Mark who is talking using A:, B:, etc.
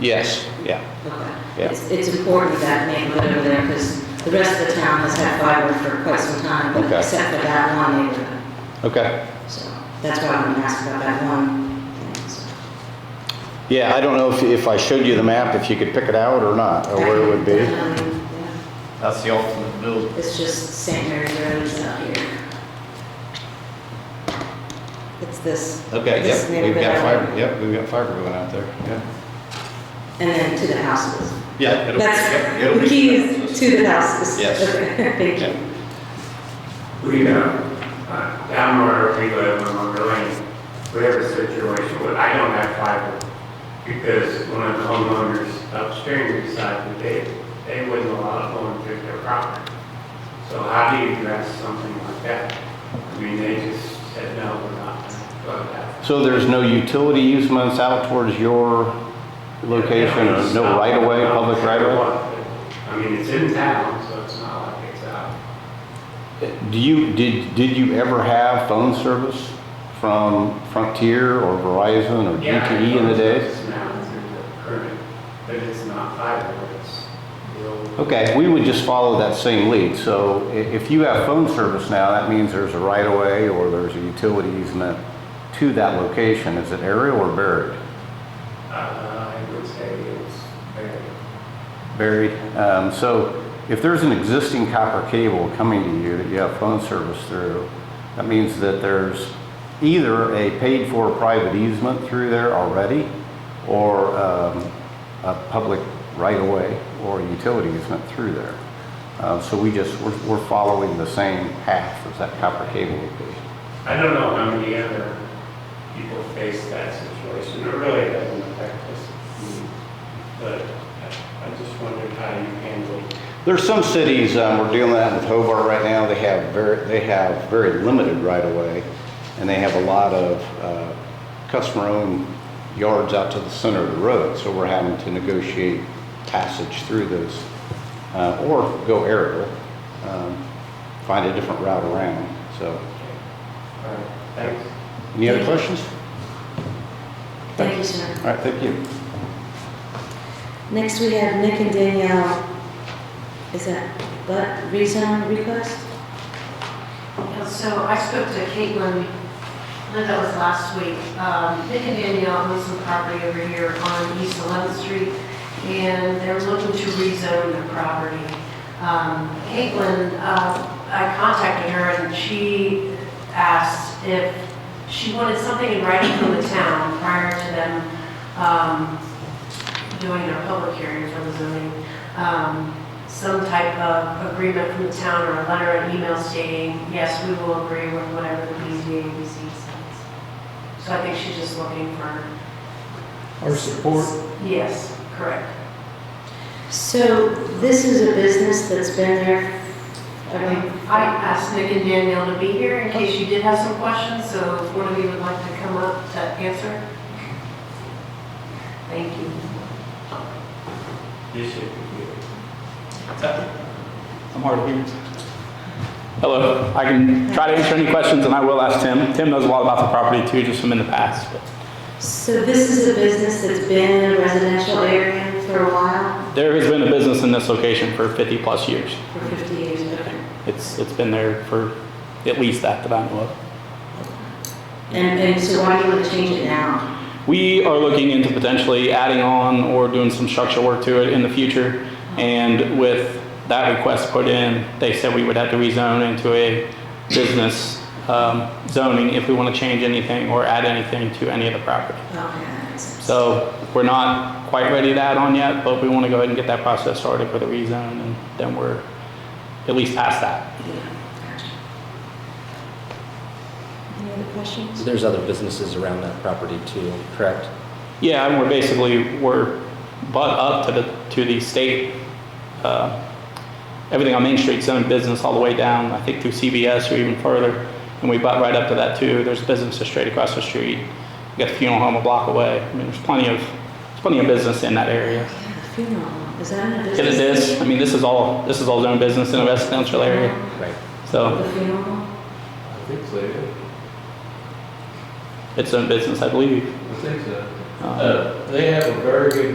A: Yes, yeah.
B: Okay.
A: Yeah.
B: It's, it's important that neighborhood over there, because the rest of the town has had fiber for quite some time,
A: Okay.
B: except for that one neighborhood.
A: Okay.
B: So that's why I'm gonna ask about that one. thing, so.
A: Yeah, I don't know if, if I showed you the map, if you could pick it out or not,
C: Oh,
A: or where it would be.
B: Um, yeah.
C: That's the ultimate build.
B: It's just St. Mary's Road is out here. It's this.
C: Okay,
B: this
C: yep, we've got
B: neighborhood out
C: fiber,
B: here.
C: yep, we've got fiber going out there, yeah.
B: And then to the houses.
C: Yeah, it'll, yep,
B: That's,
C: it'll
B: the
C: be.
B: key is to the houses.
C: Yes.
B: Okay, Thank you.
C: Yeah.
D: We, uh, uh, down where we live in Monroe Lane, we have a situation where I don't have fiber because one of the homeowners upstream decided they, they wouldn't allow it going through their property. So how do you address something like that? I mean, they just said, no, we're not going to that.
A: So there's no utility easements out towards your location, no right of way, public right of way?
D: I mean, it's in town, so it's not like it's out.
A: Do you, did, did you ever have phone service from Frontier or Verizon or
D: Yeah,
A: GTE in the days?
D: It's now through the current, but it's not fiber, it's the old.
A: Okay, we would just follow that same lead. So i- if you have phone service now, that means there's a right of way or there's a utility easement to that location. Is it aerial or buried?
D: Uh, I would say it's very,
A: Buried. Um, so if there's an existing copper cable coming to you that you have phone service through, that means that there's either a paid for private easement through there already or um, a public right of way or utility easement through there. Um, so we just, we're, we're following the same path as that copper cable would be.
D: I don't know how many other people face that situation, it really doesn't affect us. But I I just wondered how you handle.
A: There's some cities, um, we're dealing with that with Hobart right now, they have very, they have very limited right of way. And they have a lot of, uh, customer owned yards out to the center of the road. So we're having to negotiate passage through those, uh, or go aerial, um, find a different route around, so.
D: All right, thanks.
A: Any other questions?
B: Thank you, sir.
A: All right, thank you.
B: Next, we have Nick and Danielle. Is that but rezone request?
E: Yeah, So I spoke to Caitlin, I think that was last week. Um, Nick and Danielle own some property over here on East 11th Street, and they're looking to rezone their property. Um, Caitlin, uh, I contacted her, and she asked if she wanted something in writing from the town prior to them um, doing their public hearing for the zoning. Um, some type of agreement from the town or a letter and email stating, yes, we will agree with whatever the BZA, ABC says. So I think she's just looking for.
F: Our support,
E: Yes, correct.
B: So this is a business that's been there, I mean,
E: Um, I asked Nick and Danielle to be here in case you did have some questions, so if one of you would like to come up to answer. Thank you.
D: You should be here.
G: I'm hard of hearing. Hello, I can try to answer any questions and I will ask Tim. Tim knows a lot about the property too, just from in the past. but
B: so this is a business that's been in a residential area for a while,
G: There has been a business in this location for 50 plus years.
B: for 50 years, okay.
G: It's, it's been there for at least that that I know of.
B: And, and so why do you want to change it now?
G: We are looking into potentially adding on or doing some structural work to it in the future. And with that request put in, they said we would have to rezone into a business um, zoning if we want to change anything or add anything to any of the property.
B: Okay.
G: So we're not quite ready to add on yet, but we want to go ahead and get that process started for the rezone, and then we're at least past that.
B: Any other questions?
H: There's other businesses around that property too, correct?
G: Yeah, and we're basically, we're butt up to the, to the state. uh, Everything on Main Street's own business all the way down, I think through CBS or even further. And we butt right up to that too. There's businesses straight across the street. We got the funeral home a block away. I mean, there's plenty of, there's plenty of business in that area.
B: Yeah, the funeral, home. is that a
G: It
B: business?
G: is, I mean, this is all, this is all zone business in a residential area,
H: Right.
G: so.
B: The funeral? home?
I: I think so, yeah.
G: its own business, I believe.
I: I think so.
G: Uh,
I: Uh, They have a very good